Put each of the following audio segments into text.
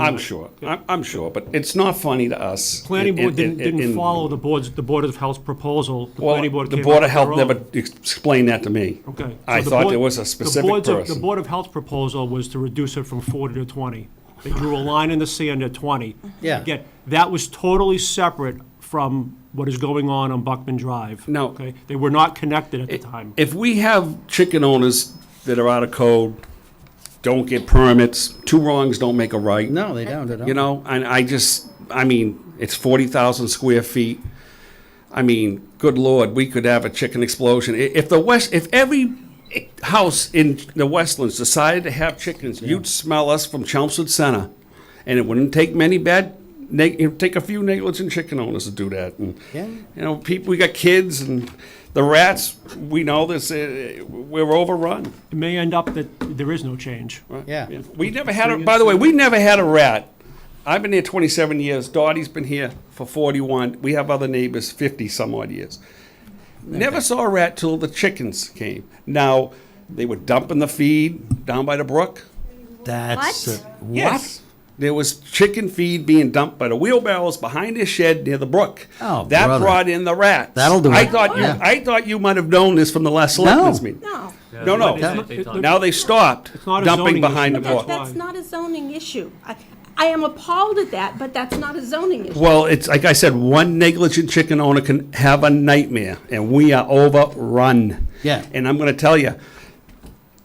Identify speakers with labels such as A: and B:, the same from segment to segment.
A: I'm sure, I'm, I'm sure, but it's not funny to us.
B: Planning
A: It-
B: board
A: it-
B: didn't,
A: it-
B: didn't
A: in-
B: follow the board's, the Board of Health's proposal. The
A: Well,
B: planning board
A: the
B: came
A: Board of
B: up with
A: Health
B: their
A: never
B: own.
A: ex- explained that to me.
B: Okay.
A: I
B: So the
A: thought
B: board-
A: there was
B: the
A: a specific
B: board's- The
A: person.
B: Board of Health proposal was to reduce it from 40 to 20. They drew a line in the sand at 20.
C: Yeah.
B: Again, that was totally separate from what is going on on Buckman Drive.
A: Now-
B: Okay? They were not connected at the time.
A: If we have chicken owners that are out of code, don't get permits, two wrongs don't make a right.
C: No, they don't, they don't.
A: You know, and I just, I mean, it's forty thousand square feet. I mean, good lord, we could have a chicken explosion. I- If the west, if every house in the Westlands decided to have chickens, you'd smell us from Chelmsford Center. And it wouldn't take many bad, neg- it'd take a few negligent chicken owners to do that. And,
C: Yeah.
A: you know, people, we got kids and the rats, we know this, uh, we're overrun.
B: It may end up that there is no change.
C: Yeah.
A: We never had a, by the way, we never had a rat. I've been here 27 years. Dottie's been here for 41. We have other neighbors 50 some odd years. Never saw a rat till the chickens came. Now, they were dumping the feed down by the brook.
C: That's
D: What?
C: uh,
A: Yes. There was chicken feed being dumped by the wheelbarrows behind his shed near the brook.
C: Oh,
A: that
C: brother.
A: brought in the rats.
C: That'll do
A: I
C: it.
A: thought you.
C: Yeah.
A: I thought you might have known this from the last selectmen's meeting.
D: No,
A: No, no.
B: they talked-
A: Now they stopped
B: not a
A: dumping
B: zoning
A: behind the
B: issue.
A: brook.
D: that, that's not a zoning issue. I, I am appalled at that, but that's not a zoning issue.
A: Well, it's like I said, one negligent chicken owner can have a nightmare, and we are overrun.
C: Yeah.
A: And I'm going to tell you,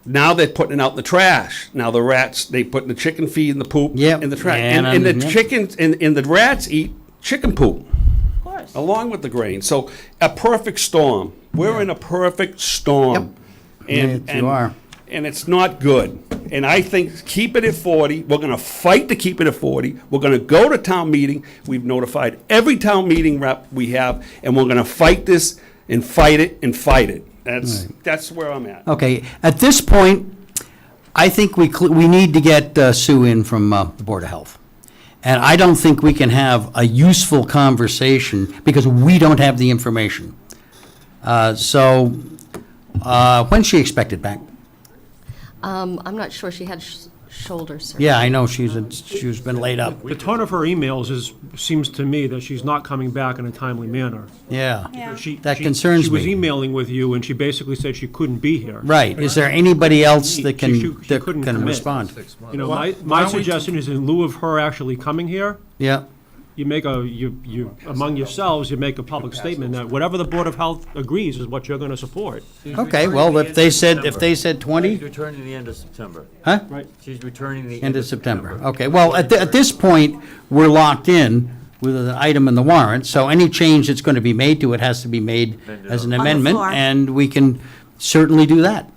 A: now they're putting out the trash. Now the rats, they put in the chicken feed and the poop
C: Yep.
A: in the trash.
C: And,
A: And, and the
C: um, yep.
A: chickens and, and the rats eat chicken poop
D: Of course.
A: along with the grain. So a perfect storm. We're in a perfect storm. And,
C: Yeah, you
A: and-
C: are.
A: And it's not good. And I think keep it at 40. We're going to fight to keep it at 40. We're going to go to town meeting. We've notified every town meeting rep we have, and we're going to fight this and fight it and fight it. That's that's where I'm at.
C: Okay, at this point, I think we, cl- we need to get uh, Sue in from uh, the Board of Health. And I don't think we can have a useful conversation because we don't have the information. Uh, So, uh, when's she expected back?
E: Um, I'm not sure, she had sh- shoulder surgery.
C: Yeah, I know she's, she's been laid up.
B: The tone of her emails is, seems to me that she's not coming back in a timely manner.
C: Yeah.
B: She-
C: That
B: she-
C: concerns
B: She was
C: me.
B: emailing with you, and she basically said she couldn't be here.
C: Right, is there anybody else that
B: She- she-
C: can,
B: she
C: that
B: couldn't
C: can
B: commit.
C: respond?
B: You know, my, my suggestion is in lieu of her actually coming here,
C: Yeah,
B: you make a, you, you, among yourselves, you make a public statement that whatever the Board of Health agrees is what you're gonna support.
C: okay, well, if they said, if they said 20?
F: She's returning the end of September.
C: Huh?
B: Right.
F: She's returning the
C: End of September, okay. Well, at, thi- at this point, we're locked in with an item in the warrant, so any change that's going to be made to it has to be made as an
D: On the
C: amendment,
D: floor.
C: and we can certainly do that.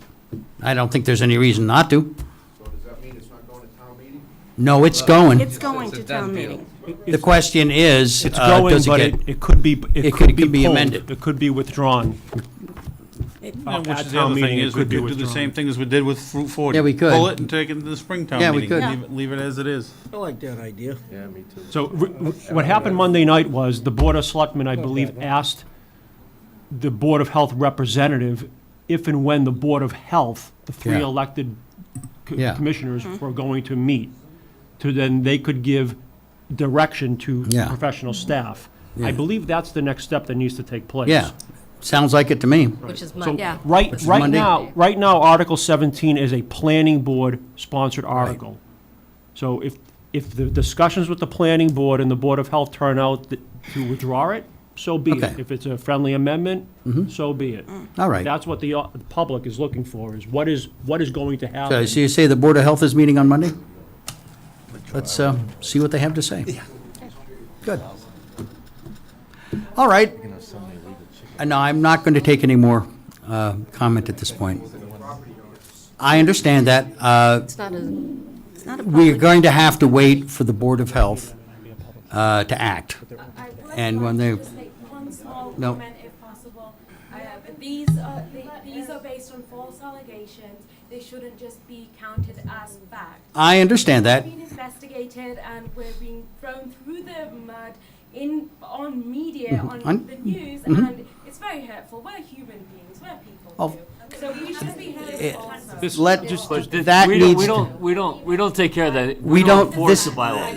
C: I don't think there's any reason not to.
G: So does that mean it's not going to town meeting?
C: No, it's going.
D: It's going to town meeting.
C: The question is,
B: It's
C: uh,
B: going,
C: does
B: but
C: it
B: it,
C: get?
B: it could be,
C: it
B: it
C: could-
B: could be
C: could be
B: pulled.
C: amended.
B: It could be withdrawn.
H: And
B: At
H: Which is the
B: town
H: other thing
B: meeting, it
H: is, we
B: could be
H: could do the
B: withdrawn.
H: same thing as we did with Route 40.
C: Yeah, we could.
H: Pull it and take it to the Springtown
C: Yeah,
H: meeting.
C: we could.
H: Leave it- Leave it as it is.
I: I like that idea.
B: So re- what happened Monday night was the Board of Selectmen, I believe, asked the Board of Health representative if and when the Board of Health, the three
C: Yeah.
B: elected co-
C: Yeah.
B: commissioners were going to meet, to then they could give direction to
C: Yeah.
B: professional staff. I believe that's the next step that needs to take place.
C: Yeah, sounds like it to me.
E: Which is
B: So
E: Monday.
B: right,
C: is
B: right
C: Monday.
B: now, right now, Article 17 is a planning board-sponsored article. So if, if the discussions with the planning board and the Board of Health turn out th- to withdraw it, so be
C: Okay. Mm-hmm.
B: it. If it's a friendly amendment, so be it.
C: All right.
B: That's what the, uh, the public is looking for, is what is, what is going to
C: So
B: happen.
C: Uh, so you say the Board of Health is meeting on Monday? Let's uh, see what they have to say. Good. All right. Uh, No, I'm not going to take any more uh, comment at this point. I understand that. Uh,
E: It's not a,
D: It's not a
C: We're
D: public,
C: going to have to wait for the Board of Health uh, to act. And when they-
J: Just make One small
C: No.
J: comment if possible. Uh, These are, the- these are based on false allegations.
I: they shouldn't just be counted as fact.
C: I understand that.
I: We've been investigated and we're being thrown through the mud in, on media, on
C: And-
I: the news, and it's very hurtful. We're human beings, we're people
C: mm-hmm. Of-
I: too. So we should be heard also.
C: Let,
I: Just-
C: that
F: We don't,
C: needs
F: we
C: to.
F: don't, we don't, we don't take care of that.
C: We don't- this-
F: enforce the bylaw.